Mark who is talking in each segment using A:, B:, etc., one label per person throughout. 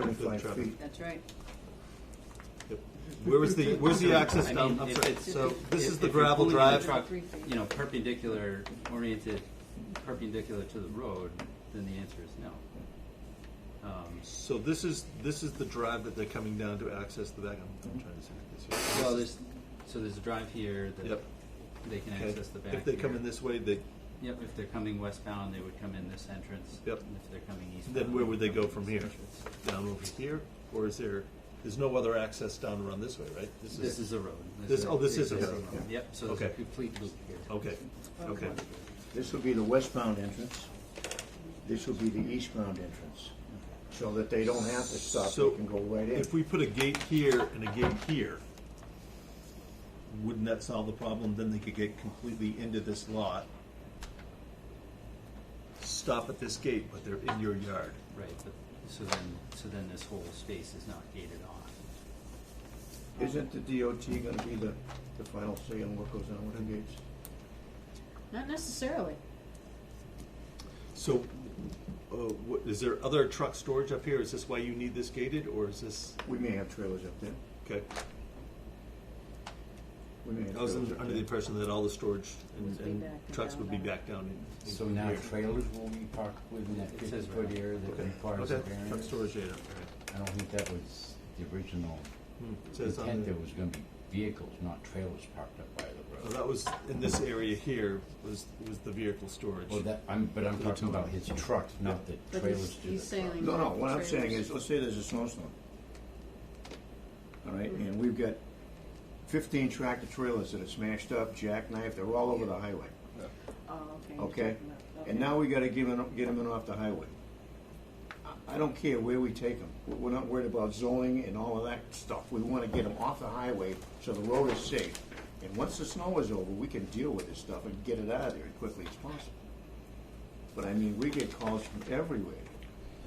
A: 75 feet.
B: That's right.
C: Yep. Where was the, where's the access
D: I
C: down?
D: mean,
C: I'm
D: if
C: sorry,
D: it's-
C: so this
D: if-
C: is the
D: if you're
C: gravel
D: pulling
C: drive.
D: truck, You know, perpendicular, oriented perpendicular to the road, then the answer is no. Um,
C: So this is, this is the drive that they're coming down to access the back. I'm, I'm trying to see if this. is-
D: Well, there's, so there's a drive here that
C: Yep.
D: they can
C: Okay.
D: access the back.
C: If they come
D: here.
C: in this way, they,
D: Yep, if they're coming westbound, they would come in this entrance.
C: Yep.
D: And If they're coming eastbound.
C: then where would they
D: come
C: go
D: in
C: from
D: this
C: here?
D: entrance.
C: Down over here, or is there, there's no other access down around this way, right?
D: This is a road.
C: This- oh, this is a
D: existing
C: road, yeah.
D: Yep, so there's a
C: Okay.
D: complete loop here.
C: Okay, okay.
A: This would be the westbound entrance. This would be the eastbound entrance, so that they don't have to stop,
C: So
A: they can go right in.
C: If we put a gate here and a gate here, wouldn't that solve the problem? Then they could get completely into this lot, stop at this gate, but they're in your yard.
D: Right, but, so then, so then this whole space is not gated off.
A: Isn't the DOT gonna be the, the final say on what goes on with the gates?
B: Not necessarily.
C: So, uh, what, is there other truck storage up here? Is this why you need this gated, or is this,
A: We may have trailers up there.
C: okay?
A: We may have
C: I was
A: trailers
C: under
A: up
C: under the
A: there.
C: impression that all the storage and,
B: Would be
C: and
B: back
C: trucks would be
B: down.
C: back down in. in
E: So now
C: here.
E: trailers will be parked within that
D: It says
E: fifty foot
D: right.
E: area that
C: Okay,
E: requires a
C: okay, truck
E: variance?
C: storage area, okay.
E: I don't think that was the original
C: Hmm, it says on
E: intent,
C: the-
E: there was gonna be vehicles, not trailers parked up by the
C: Well,
E: road.
C: that was, in this area here, was, was the vehicle storage.
E: Well, that, I'm, but I'm
C: The
E: talking
C: two-
E: about his truck, not the
B: But
E: trailers
B: he's-
E: to
B: he's
E: the truck.
B: sailing-
A: No, no, what I'm saying
B: Trailers.
A: is, let's say there's a snowstorm. All right, and we've got fifteen tractor trailers that are smashed up, jackknifed, they're all over the highway,
B: Oh, okay. you're
A: okay?
B: talking about-
A: And now we gotta give them, get them in off the highway. I- I don't care where we take them, we're not worried about zoning and all of that stuff, we wanna get them off the highway so the road is safe. And once the snow is over, we can deal with this stuff and get it out of there as quickly as possible. But I mean, we get calls from everywhere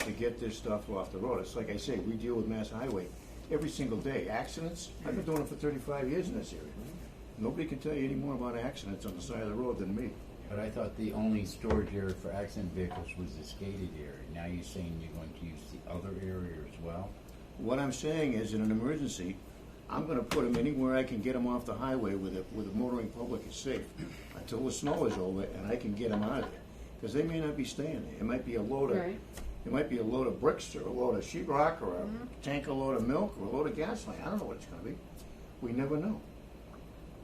A: to get this stuff off the road. It's like I say, we deal with Mass Highway every single day. Accidents, I've been doing it for thirty-five years in this area. Nobody can tell you any more about accidents on the side of the road than me.
E: But I thought the only storage area for accident vehicles was this gated area. Now you're saying you're going to use the other area as well?
A: What I'm saying is, in an emergency, I'm gonna put them anywhere I can get them off the highway where the, where the motoring public is safe until the snow is over and I can get them out of there. Cause they may not be staying there. It might be a load of,
B: Right.
A: it might be a load of bricks or a load of sheet rock or a tank of load of milk or a load of gasoline. I don't know what it's gonna be. We never know.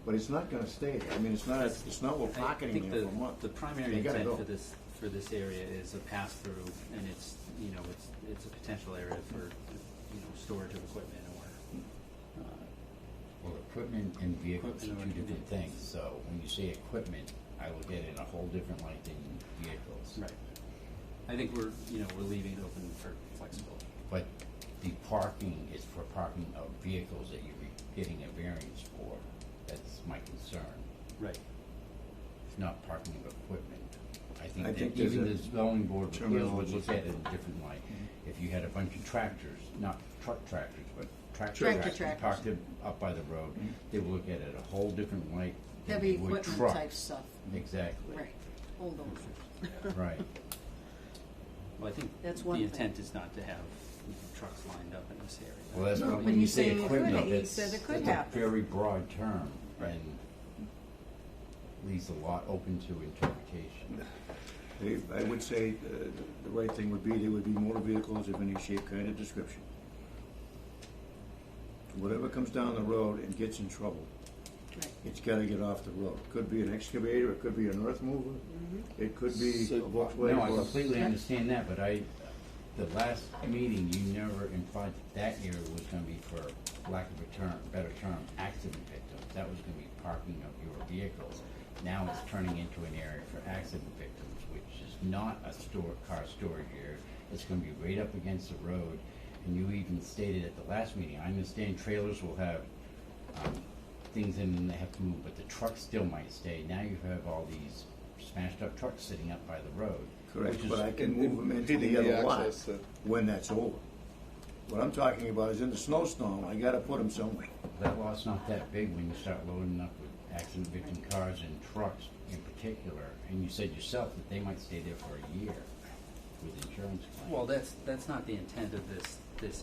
A: But it's not gonna stay there. I mean, it's not, it's not, we're
D: I
A: pocketing
D: think
A: there
D: the-
A: for a month.
D: The primary
A: They gotta go.
D: intent for this, for this area is a pass-through, and it's, you know, it's, it's a potential area for, you know, storage of equipment or, uh,
E: Well, equipment and vehicles are two
D: Equipment and
E: different
D: vehicles.
E: things, so when you say equipment, I look at it in a whole different light than vehicles.
D: right. I think we're, you know, we're leaving it open for flexibility.
E: But the parking is for parking of vehicles that you're getting a variance for. That's my concern.
D: Right.
E: It's not parking of equipment. I
A: I
E: think
A: think
E: that
A: there's
E: even
A: a
E: the zoning board of
A: term
E: appeals
A: of
E: would
A: what
E: look
A: you-
E: at it in a different light. If you had a bunch of tractors, not truck tractors, but tractor
B: Tractor
E: tractors
B: tractors.
E: parked in- up by the road, they would look at it a whole different light than
B: Heavy
E: they would
B: equipment
E: trucks.
B: type stuff.
E: Exactly.
B: Right. Hold on.
E: Right.
D: Well, I think
B: That's
D: the
B: one thing.
D: intent is not to have you know, trucks lined up in this area.
E: Well, that's
B: No,
E: probably
B: but
E: when you
B: he's
E: say
B: saying it could.
E: equipment,
B: He
E: that's,
B: said it could
E: that's a
B: happen.
E: very broad term
D: Right.
E: and leaves a lot open to interpretation.
A: They- I would say uh, the right thing would be, there would be motor vehicles of any shape, kind, of description. Whatever comes down the road and gets in trouble,
B: Right.
A: it's gotta get off the road. Could be an excavator, it could be an earth mover, it could be a
C: So-
A: Volkswagen.
E: No, I
A: or-
E: completely
B: Yeah.
E: understand that, but I, the last meeting, you never implied that that area was gonna be for lack of a term, better term, accident victims. That was gonna be parking of your vehicles. Now it's turning into an area for accident victims, which is not a store, car storage area. It's gonna be right up against the road. And you even stated at the last meeting, I understand trailers will have, um, things in and they have to move, but the trucks still might stay. Now you have all these smashed up trucks sitting up by the road.
A: Correct,
E: which is-
A: but I can
F: And-
A: move
F: and
A: them into the
F: impeding the
A: other lot
F: access, uh,
A: when that's over. What I'm talking about is in the snowstorm, I gotta put them somewhere.
E: That lot's not that big when you start loading up with accident victim cars and trucks in particular. And you said yourself that they might stay there for a year with insurance claims.
D: Well, that's, that's not the intent of this,